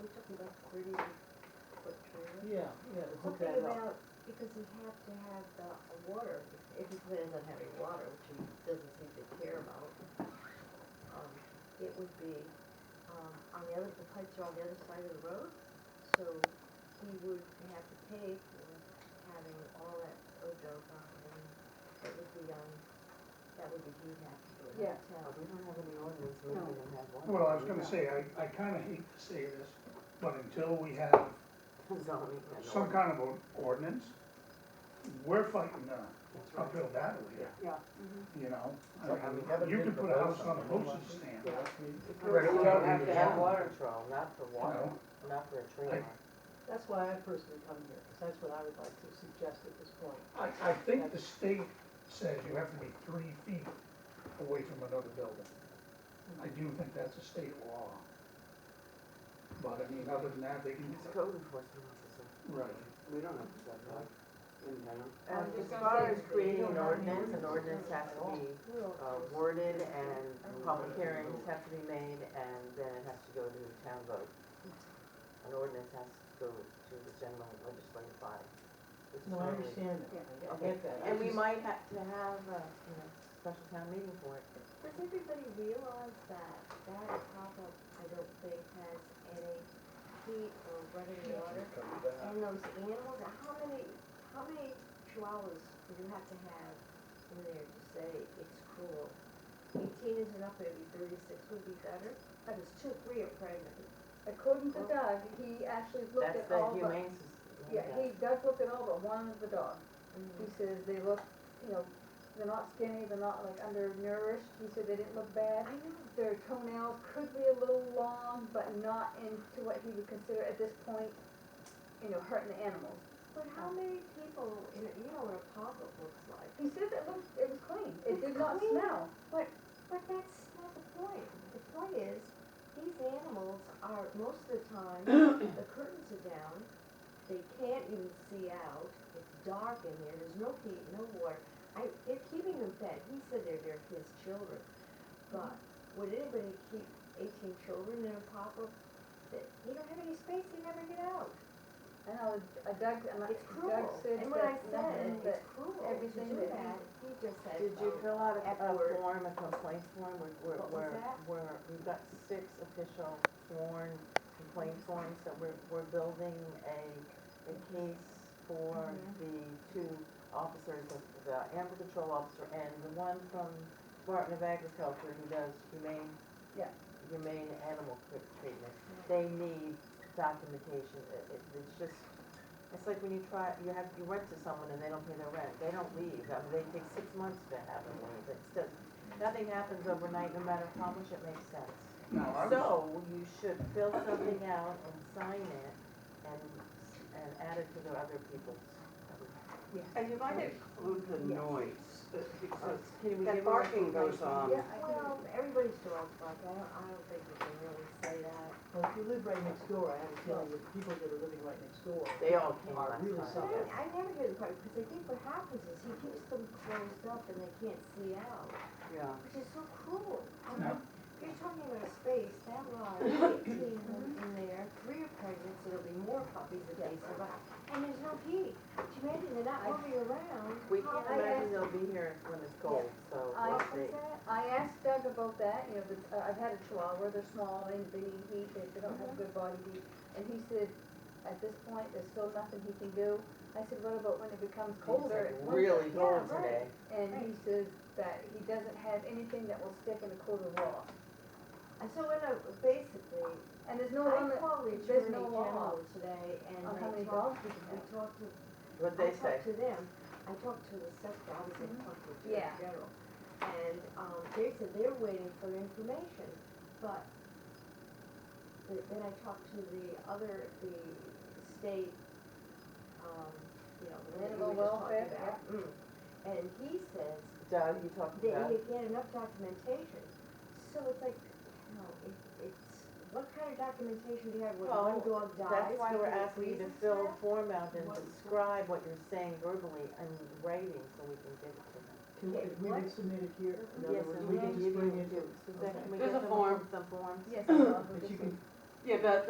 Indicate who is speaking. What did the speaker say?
Speaker 1: where do you put trailer?
Speaker 2: Yeah, yeah, to hook
Speaker 1: Something
Speaker 2: that
Speaker 1: about,
Speaker 2: up.
Speaker 1: because you have to have the water, if he plans on having water, which he doesn't seem to care about, um, it would be, um, on the other, the pipes are on the other side of the road, so he would have to pay for having all that Odoka, and it would be, um, that would be, he'd have to do it,
Speaker 3: Yeah.
Speaker 1: not town.
Speaker 2: oh,
Speaker 3: We don't have any ordinance, we don't even have one.
Speaker 4: Well, I was gonna say, I, I kinda hate to say this, but until we have
Speaker 3: Zoning and
Speaker 4: some kind of an ordinance, we're fighting the
Speaker 3: ordinance, right.
Speaker 4: uphill battle here,
Speaker 3: Yeah. Mm-hmm.
Speaker 4: you know?
Speaker 5: It's like,
Speaker 4: I mean,
Speaker 5: we haven't
Speaker 4: You
Speaker 5: been
Speaker 4: could
Speaker 5: to
Speaker 4: put a house
Speaker 5: vote
Speaker 4: on a
Speaker 5: on it.
Speaker 4: postage stand,
Speaker 3: Yeah.
Speaker 5: Right,
Speaker 3: You
Speaker 5: we
Speaker 3: don't
Speaker 5: don't
Speaker 3: have
Speaker 5: need
Speaker 3: to
Speaker 5: to
Speaker 3: have
Speaker 5: have
Speaker 3: water control, not for water,
Speaker 4: No.
Speaker 3: not for a trailer.
Speaker 2: That's why I personally come here, because that's what I would like to suggest at this point.
Speaker 4: I, I think the state says you have to be three feet away from another building. I do think that's a state law. But I mean, other than that, they can,
Speaker 3: It's a code enforcement officer.
Speaker 4: right,
Speaker 3: We don't have that, right? In
Speaker 1: I
Speaker 3: town.
Speaker 1: was
Speaker 6: Um, as
Speaker 1: just gonna
Speaker 6: far
Speaker 1: say
Speaker 6: as
Speaker 1: that they
Speaker 6: creating
Speaker 1: don't have
Speaker 6: an
Speaker 1: any
Speaker 6: ordinance, an
Speaker 1: ordinance
Speaker 6: ordinance has to be
Speaker 1: Well,
Speaker 3: uh, worded and public hearings have to be made and then it has to go to the town vote. An ordinance has to go to the general legislative body. which is
Speaker 2: No, I
Speaker 3: normally-
Speaker 2: understand that, I
Speaker 3: Okay.
Speaker 2: get that. I
Speaker 3: And we
Speaker 2: just-
Speaker 3: might have to have a, you know, special town meeting for it.
Speaker 1: Does everybody realize that that pop-up, I don't think, has any heat or running water? And those animals, how many, how many chihuahuas do you have to have in there to say it's cruel? Eighteen isn't up, maybe thirty-six would be better, but it's two, three are pregnant.
Speaker 6: According to Doug, he actually looked
Speaker 3: That's
Speaker 6: at
Speaker 3: the
Speaker 6: all but,
Speaker 3: humane society.
Speaker 6: yeah, he, Doug looked at all but one of the dogs. He says they look, you know, they're not skinny, they're not like undernourished, he said they didn't look bad.
Speaker 1: I know,
Speaker 6: Their toenails could be a little long, but not into what he would consider at this point, you know, hurting the animals.
Speaker 1: but how many people, in a- you know what a pop-up looks like?
Speaker 6: He said that looked, it was clean, it
Speaker 1: It's
Speaker 6: did not
Speaker 1: clean.
Speaker 6: smell.
Speaker 1: But, but that's not the point. The point is, these animals are, most of the time, the curtains are down, they can't even see out, it's dark in there, there's no heat, no water. I, they're keeping them fed, he said they're, they're his children. But would anybody keep eighteen children in a pop-up? That- You don't have any space, you never get out.
Speaker 6: I know, uh, Doug, and I-
Speaker 1: It's
Speaker 6: Doug
Speaker 1: cruel.
Speaker 6: said
Speaker 1: And when I
Speaker 6: that
Speaker 1: said,
Speaker 6: nothing, but
Speaker 1: it's cruel to
Speaker 6: everything
Speaker 1: do
Speaker 6: that he-
Speaker 1: that, he just said,
Speaker 3: Did you
Speaker 1: oh,
Speaker 3: fill out a,
Speaker 1: F
Speaker 3: a
Speaker 1: word.
Speaker 3: form, a complaint form, we're, we're,
Speaker 1: What was
Speaker 3: we're,
Speaker 1: that?
Speaker 3: we're- we've got six official sworn complaint forms that we're, we're building a, a case for
Speaker 1: Mhm.
Speaker 3: the two officers, the- the animal control officer and the one from Department of Agriculture who does humane.
Speaker 6: Yeah.
Speaker 3: Humane animal tr- treatment,
Speaker 1: Yeah.
Speaker 3: they need documentation, It- it- it's just, it's like when you try, you have, you rent to someone and they don't pay their rent, they don't leave, I mean, they take six months to have them leave, it's just, nothing happens overnight, no matter how much it makes sense.
Speaker 4: now, I was,
Speaker 3: So, you should fill something out and sign it and, and add it to the other people's.
Speaker 7: And you might include the noise, that- because
Speaker 3: Can we
Speaker 7: that
Speaker 3: give her a
Speaker 7: barking goes
Speaker 3: complaint?
Speaker 7: on.
Speaker 6: Yeah, I can.
Speaker 1: Well, everybody's dog's like that, I don't think we can really say that.
Speaker 2: Well, if you live right next door, I have a feeling that the people that are living right next door,
Speaker 3: They all came
Speaker 2: Are
Speaker 3: last
Speaker 2: really
Speaker 3: time.
Speaker 1: But I,
Speaker 2: Okay.
Speaker 1: I never hear the part, because I think what happens is he keeps them closed up and they can't see out,
Speaker 7: Yeah.
Speaker 1: which is so cruel. I
Speaker 4: No.
Speaker 1: mean, if You're talking about a space that large, eighteen of them in there, three are pregnant, so there'll be more puppies if they survive, and there's no heat. Could you imagine they're not moving around?
Speaker 3: We can't
Speaker 1: How- I
Speaker 3: imagine
Speaker 1: guess-
Speaker 3: they'll be here when it's cold, so
Speaker 6: I-
Speaker 3: we'll
Speaker 1: What
Speaker 3: see.
Speaker 1: was that?
Speaker 6: I asked Doug about that, you know, the- uh, I've had a chihuahua, they're small, they, they need heat, they they don't have good body heat. And he said, at this point, there's still nothing he can do. I said, what about when it becomes
Speaker 3: It's
Speaker 6: colder?
Speaker 3: like
Speaker 6: It's winter."
Speaker 3: really
Speaker 1: Yeah,
Speaker 3: cold
Speaker 1: right.
Speaker 3: today.
Speaker 6: And he says that he doesn't have anything that will stick in a cooler wall.
Speaker 1: And so, in a, basically,
Speaker 6: And there's no
Speaker 1: I
Speaker 6: limit
Speaker 1: called the
Speaker 6: there's
Speaker 1: attorney
Speaker 6: no law
Speaker 1: general today and
Speaker 6: on how
Speaker 1: I
Speaker 6: many
Speaker 1: talked,
Speaker 6: dogs you can
Speaker 1: we
Speaker 6: have.
Speaker 1: talked to
Speaker 3: What'd they
Speaker 1: I
Speaker 3: say? Mm-hmm.
Speaker 1: talked to them, I talked to the sec, I was in contact with the
Speaker 6: Yeah.
Speaker 1: general, and, um, they said they're waiting for information, but th- then I talked to the other, the state, um, you know, the one that you
Speaker 6: Animal
Speaker 1: were just
Speaker 6: welfare,
Speaker 1: talking about. Mm. And he says
Speaker 3: Doug, you talked
Speaker 1: they
Speaker 3: to Doug?
Speaker 1: need to get enough documentation, so it's like, you know, it, it's, what kind of documentation do you have when
Speaker 3: Well,
Speaker 1: one dog dies?
Speaker 3: That's why we're
Speaker 1: because of
Speaker 3: asking you to
Speaker 1: reasons for
Speaker 3: fill
Speaker 1: that?
Speaker 3: a form out and
Speaker 1: What-
Speaker 3: describe what you're saying verbally and writing so we can give it to them.
Speaker 2: can we, if we
Speaker 1: What?
Speaker 2: can submit it here? In other
Speaker 3: Yes,
Speaker 2: words,
Speaker 3: and
Speaker 2: we
Speaker 3: we
Speaker 2: can
Speaker 3: can
Speaker 2: just
Speaker 3: give
Speaker 2: bring
Speaker 3: you,
Speaker 2: it to.
Speaker 3: Suzanne, can we
Speaker 7: There's
Speaker 3: get
Speaker 7: a
Speaker 3: them
Speaker 7: form.
Speaker 3: some forms?
Speaker 6: Yes, I love
Speaker 2: But
Speaker 6: this
Speaker 2: you
Speaker 6: one.
Speaker 2: can
Speaker 7: Yeah, but